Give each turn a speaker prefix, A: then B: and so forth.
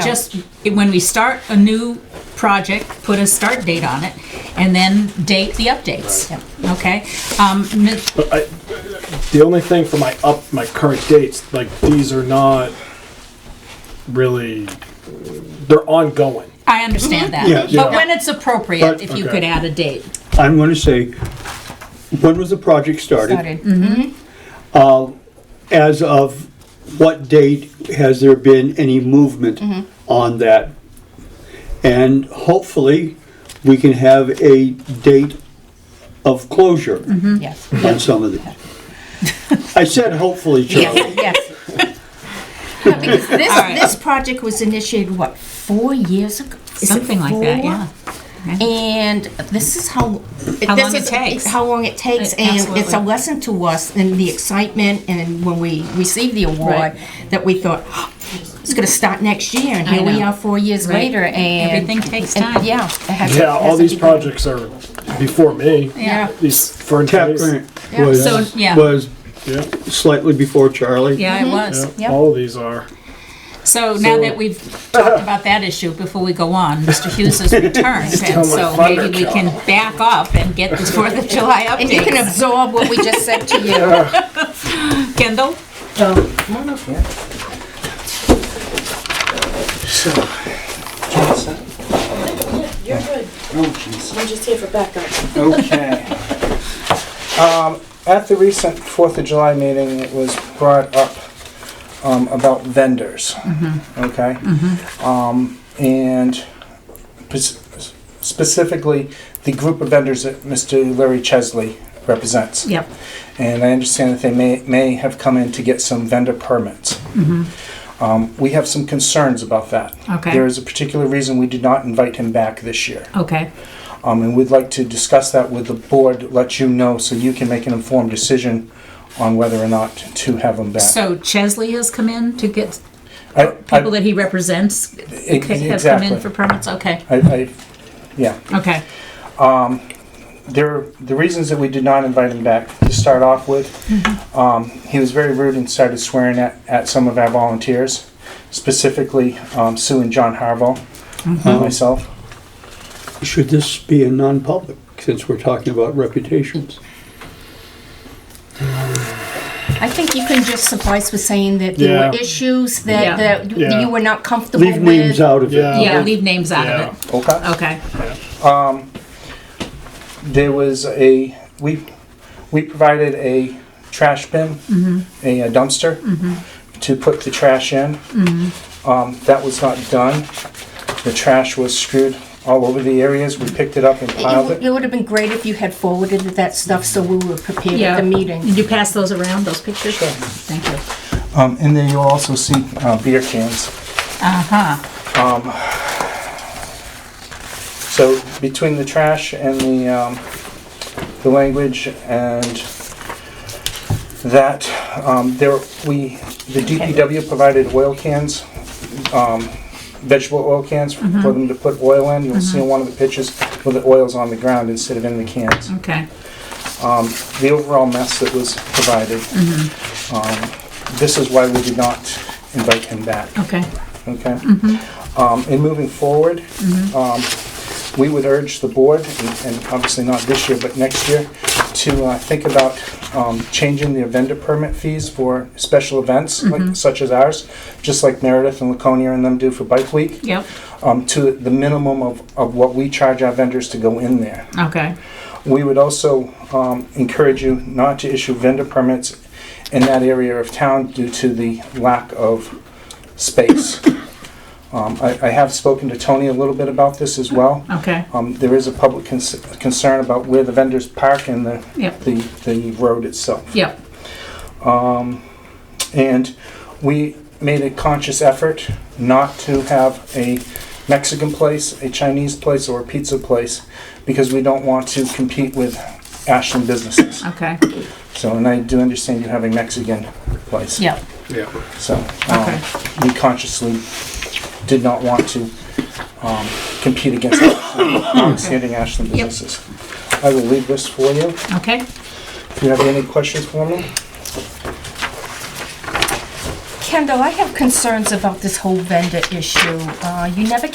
A: Just, when we start a new project, put a start date on it, and then date the updates, okay? Um, mi-
B: I, the only thing for my up my current dates, like these are not really they're ongoing.
A: I
C: Mm-hmm.
A: understand
D: Yeah,
A: that,
D: yeah.
A: but when it's appropriate,
B: But-
A: if you
B: okay.
A: could add a date.
D: I'm gonna say, when was the project started?
C: started.
A: Mm-hmm.
D: As of what date has there been any movement on that? And hopefully, we can have a date of closure
C: Yes,
D: on some of the. I said hopefully, Charlie.
C: yes. Because this, this project was initiated, what, four years ago? Is it
A: Something like that,
C: four?
A: yeah.
C: And this is how.
A: How
C: this
A: long it
C: is-
A: takes.
C: How long it takes,
A: Uh,
C: and it's a
A: absolutely.
C: lesson to us in the excitement and when we received the award,
A: Right.
C: that we thought, "Oh, it's gonna start next year, and
A: I
C: here we
A: know.
C: are four years
A: Right.
C: later, and.
A: Everything takes
C: and-
A: time.
C: Yeah. it has-
B: Yeah, all
C: has a
B: these
C: beginning.
B: projects are before me.
C: Yeah.
B: These for
D: Tap
B: days.
D: grant
C: Yeah.
A: So,
D: was,
A: yeah.
D: was
B: Yeah,
D: slightly before Charlie.
A: Yeah, it
C: Mm-hmm.
B: yeah,
A: was.
C: Yep.
B: all of these are.
A: So now
B: So-
A: that we've talked about that issue, before we go on, Mr. Hughes has returned, and
B: my
A: so
B: thunder
A: maybe we
B: cow.
A: can back up and get this Fourth of July
C: And you can
A: update.
C: absorb what we just said to you.
A: Kendall?
E: I'm just here for backup.
F: Okay. Um, at the recent Fourth of July meeting, it was brought up, um, about vendors.
A: Mm-hmm.
F: Okay? Um, and pers- specifically, the group of vendors that Mr. Larry Chesley represents.
A: Yep.
F: And I understand that they may, may have come in to get some vendor permits. Um, we have some concerns about that.
A: Mm-hmm. Okay.
F: There is a particular reason we did not invite him back this year.
A: Okay,
F: Um, and we'd like to discuss that with the board, let you know, so you can make an informed decision on whether or not to have them back.
A: so Chesley has come in to get
F: I- I-
A: people that he represents have come
F: exactly.
A: in for permits? Okay,
F: I, I, yeah,
A: okay,
F: there, the reasons that we did not invite him back, to start off with,
A: Mm-hmm.
F: um, he was very rude and started swearing at, at some of our volunteers, specifically, um, Sue and John Harville, and myself.
D: Should this be a non-public, since we're talking about reputations?
C: I think you can just suffice with saying that there were
B: Yeah.
C: issues
A: Yeah.
C: that, that
B: Yeah.
C: you were not comfortable with.
D: Leave names out of it.
B: Yeah.
A: yeah, leave names out
B: Yeah.
A: of it,
F: Okay.
A: okay.
F: there was a we we provided a trash bin, a, a dumpster to put the trash in. Um, that was not done. The trash was screwed all over the areas. We picked it up and
C: It-
F: piled
C: It,
F: it.
C: would have been great if you had forwarded that stuff so we were prepared
A: Yeah.
C: at the meeting.
A: Did you pass those around, those pictures? Sure. Thank you.
F: Um, and then you'll also see uh, beer cans.
A: Uh-huh,
F: So between the trash and the um, the language and that um, there we the DPW provided oil cans, um, vegetable oil cans for them to put oil in. You'll see in one of the pictures where the oil's on the ground instead of in the cans.
A: okay,
F: The overall mess that was provided. Um, this is why we did not invite him back
A: okay,
F: okay? Um, And moving forward, um, we would urge the board, and- and obviously not this year, but next year, to uh, think about um, changing the vendor permit fees for special events like- such as ours, just like Meredith and Laconia and them do for Bike Week,
A: yep,
F: um, to the minimum of of what we charge our vendors to go in there.
A: okay,
F: We would also um, encourage you not to issue vendor permits in that area of town due to the lack of space. Um, I I have spoken to Tony a little bit about this as well.
A: okay,
F: Um, There is a public cons- concern about where the vendors park and the
A: Yep.
F: the the road itself.
A: yep,
F: And we made a conscious effort not to have a Mexican place, a Chinese place, or a pizza place because we don't want to compete with Ashland businesses.
A: okay,
F: So, and I do understand you have a Mexican place.
A: yep,
F: So,
A: Okay.
F: um, we consciously did not want to, um, compete against non-standing Ashland
A: Yep.
F: businesses. I will leave this for you.
A: okay.
F: If you have any questions for me?
C: Kendall, I have concerns about this whole vendor issue. Uh, You never